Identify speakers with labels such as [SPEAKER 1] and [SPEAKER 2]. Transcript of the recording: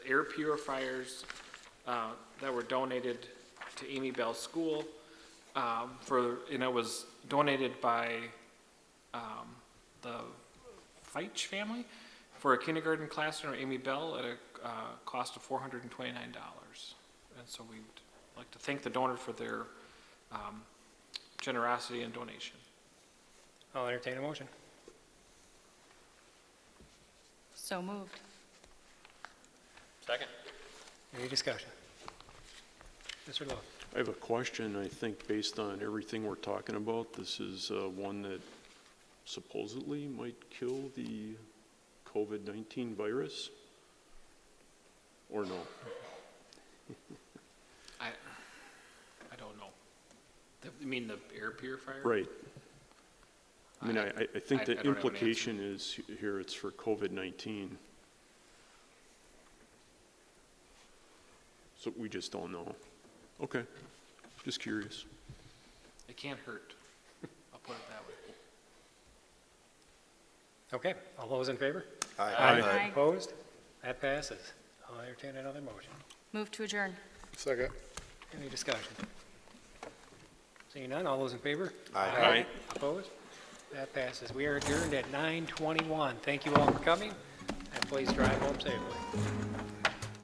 [SPEAKER 1] air purifiers uh, that were donated to Amy Bell School um, for, and it was donated by um, the Feitch family for a kindergarten classroom, Amy Bell, at a uh, cost of $429. And so we'd like to thank the donor for their um, generosity and donation.
[SPEAKER 2] I'll entertain a motion.
[SPEAKER 3] So moved.
[SPEAKER 2] Second. Any discussion? Mr. Lowe?
[SPEAKER 4] I have a question, I think, based on everything we're talking about, this is uh, one that supposedly might kill the COVID-19 virus? Or no?
[SPEAKER 1] I, I don't know. The- You mean the air purifier?
[SPEAKER 4] Right. I mean, I, I- I
[SPEAKER 1] I-
[SPEAKER 4] think
[SPEAKER 1] I
[SPEAKER 4] the
[SPEAKER 1] don't have an answer.
[SPEAKER 4] implication is here, it's for COVID-19. So we just don't know. Okay, just curious.
[SPEAKER 1] It can't hurt. I'll put it that way.
[SPEAKER 2] Okay, all those in favor?
[SPEAKER 4] Aye.
[SPEAKER 3] Aye.
[SPEAKER 2] Opposed? That passes. I'll entertain another motion.
[SPEAKER 3] Move to adjourn.
[SPEAKER 5] Second.
[SPEAKER 2] Any discussion? Seeing none, all those in favor?
[SPEAKER 4] Aye.
[SPEAKER 2] Opposed? That passes. We are adjourned at 9:21. Thank you all for coming, and please drive home safely.